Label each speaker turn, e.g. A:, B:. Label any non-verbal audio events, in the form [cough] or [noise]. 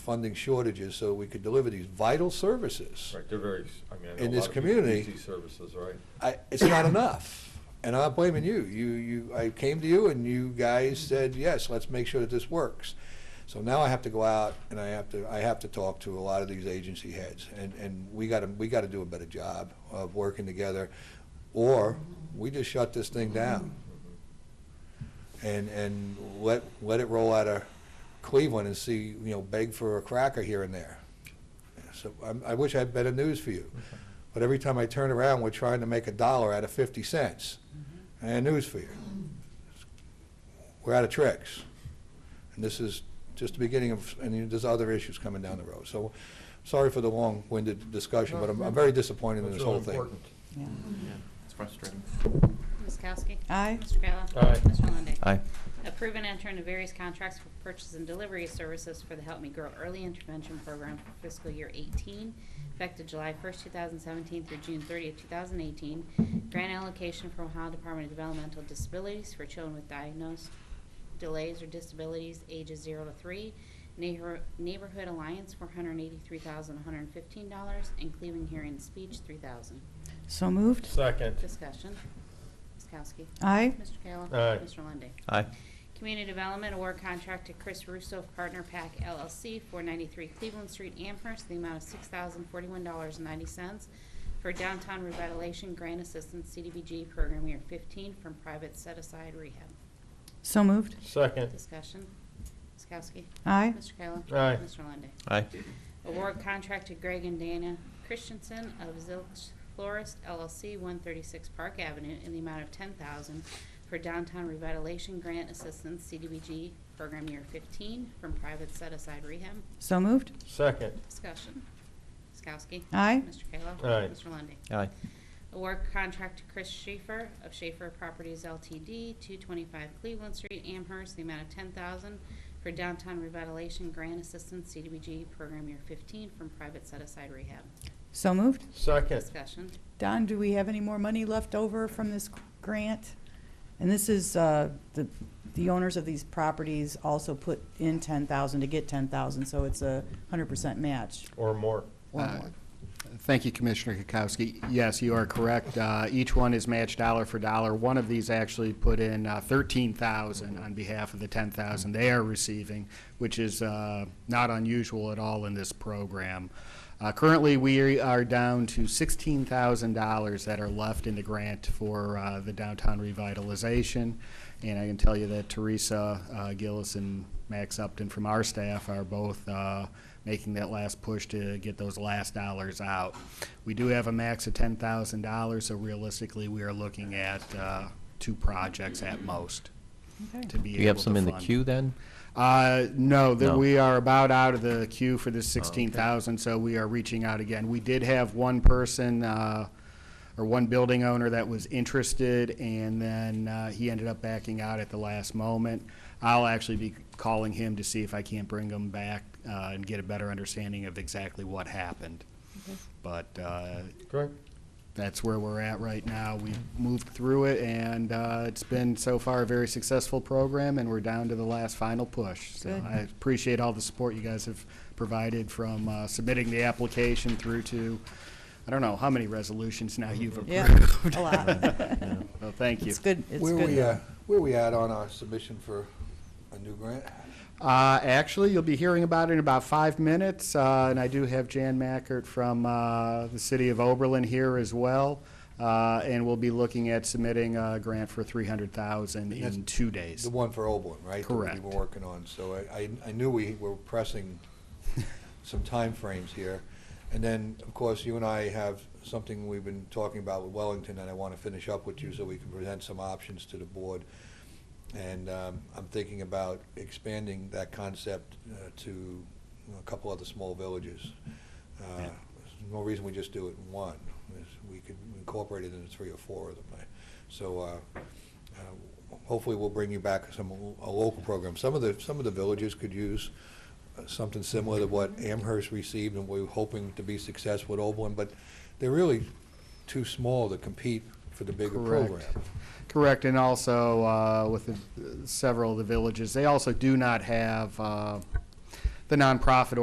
A: funding shortages so we could deliver these vital services.
B: Right, they're very, s- I mean, I know
A: In
B: a
A: this
B: lot of people use
A: community-
B: these services, right?
A: I, it's not enough. And I'm not blaming you. You, you, I came to you and you guys said, yes, let's make sure that this works. So now I have to go out and I have to, I have to talk to a lot of these agency heads and, and we gotta, we gotta do a better job of working together. Or we just shut this thing down
B: Mm-hmm.
A: and, and let, let it roll out of Cleveland and see, you know, beg for a cracker here and there. So I'm- I wish I had better news for you. But every time I turn around, we're trying to make a dollar out of 50 cents.
B: Mm-hmm.
A: And news for you. We're out of tricks. And this is just the beginning of, and there's other issues coming down the road. So, sorry for the long-winded discussion, but I'm I'm very disappointed in
B: That's
A: this
B: really
A: whole thing.
B: important.
C: Yeah.
D: Yeah, it's frustrating.
E: Ms. Kowski.
C: Aye.
E: Mr. Kayla.
B: Aye.
E: Mr. Lundey.
D: Aye.
E: Approve and enter into various contracts for purchase and delivery of services for the Help Me Grow Early Intervention Program for fiscal year 18, effective July 1st, 2017 through June 30th, 2018. Grant allocation from Ohio Department of Developmental Disabilities for children with diagnosed delays or disabilities ages 0 to 3. Neighbor- Neighborhood Alliance, $483,115, and Cleveland Hearing and Speech, $3,000.
C: So moved.
B: Second.
E: Discussion. Ms. Kowski.
C: Aye.
E: Mr. Kayla.
B: Aye.
E: Mr. Lundey.
D: Aye.
E: Community Development Award Contract to Chris Russo of Partner Pack LLC, 493 Cleveland Street, Amherst, the amount of $6,041.90 for Downtown Revitalization Grant Assistance CDBG Program Year 15 from Private Set Aside Rehab.
C: So moved.
B: Second.
E: Discussion. Ms. Kowski.
C: Aye.
E: Mr. Kayla.
B: Aye.
E: Mr. Lundey.
D: Aye.
E: Award contract to Greg and Dana Christensen of Zilch Florist LLC, 136 Park Avenue, in the amount of 10000 for Downtown Revitalization Grant Assistance, CDBG, Program Year 15, from Private Set Aside Rehab.
C: So moved.
B: Second.
E: Discussion. Ms. Kowski.
C: Aye.
E: Mr. Kayla.
B: Aye.
E: Mr. Lundey.
D: Aye.
E: Award contract to Chris Schaefer of Schaefer Properties LTD, 225 Cleveland Street, Amherst, the amount of 10000 for Downtown Revitalization Grant Assistance, CDBG, Program Year 15, from Private Set Aside Rehab.
C: So moved.
B: Second.
E: Discussion.
C: Don, do we have any more money left over from this grant? And this is, uh, the the owners of these properties also put in 10,000 to get 10,000, so it's a 100% match
B: Or more.
C: or
F: Uh,
C: more.
F: Thank you, Commissioner Kukowski. Yes, you are correct. Uh, Each one is matched dollar for dollar. One of these actually put in uh, 13,000 on behalf of the 10,000 they are receiving, which is uh, not unusual at all in this program. Uh, Currently, we are down to $16,000 that are left in the grant for uh, the downtown revitalization. And I can tell you that Teresa uh, Gillis and Max Upton from our staff are both uh, making that last push to get those last dollars out. We do have a max of ten thousand dollars, so realistically, we are looking at uh, two projects at most to
C: Okay.
F: be able to
D: Do you have some in the
F: fund.
D: queue then?
F: Uh, no, that
D: No.
F: we are about out of the queue for the sixteen thousand, so we are reaching out again. We did have one person, uh, or one building owner that was interested, and then, uh, he ended up backing out at the last moment. I'll actually be calling him to see if I can't bring him back, uh, and get a better understanding of exactly what happened. But, uh,
B: Correct.
F: that's where we're at right now. We've moved through it, and uh, it's been so far a very successful program, and we're down to the last final push. So
C: Good.
F: I appreciate all the support you guys have provided from uh, submitting the application through to, I don't know, how many resolutions now you've
C: Yeah,
F: approved?
C: a lot.
F: Well, [laughs] thank you.
C: It's good, it's
A: Where we, uh,
C: good.
A: where we at on our submission for a new grant?
F: Uh, Actually, you'll be hearing about it in about five minutes, uh, and I do have Jan Mackert from uh, the city of Oberlin here as well, uh, and we'll be looking at submitting a grant for 300000
A: That's-
F: in two days.
A: The one for Oberlin, right? That we
F: Correct.
A: were working on, so I, I- I knew we were pressing
F: [laughs]
A: some timeframes here. And then, of course, you and I have something we've been talking about with Wellington, and I want to finish up with you so we can present some options to the board. And um, I'm thinking about expanding that concept uh, to a couple other small villages. Uh,
F: Yeah.
A: there's No reason we just do it in one, is we could incorporate it into three or four of them. I- So uh, uh, hopefully, we'll bring you back some, a local program. Some of the, some of the villages could use uh, something similar to what Amherst received, and we we're hoping to be successful at Oberlin, but they're really too small to compete for the bigger
F: Correct.
A: program.
F: Correct, and also uh, with the- several of the villages, they also do not have uh, the nonprofit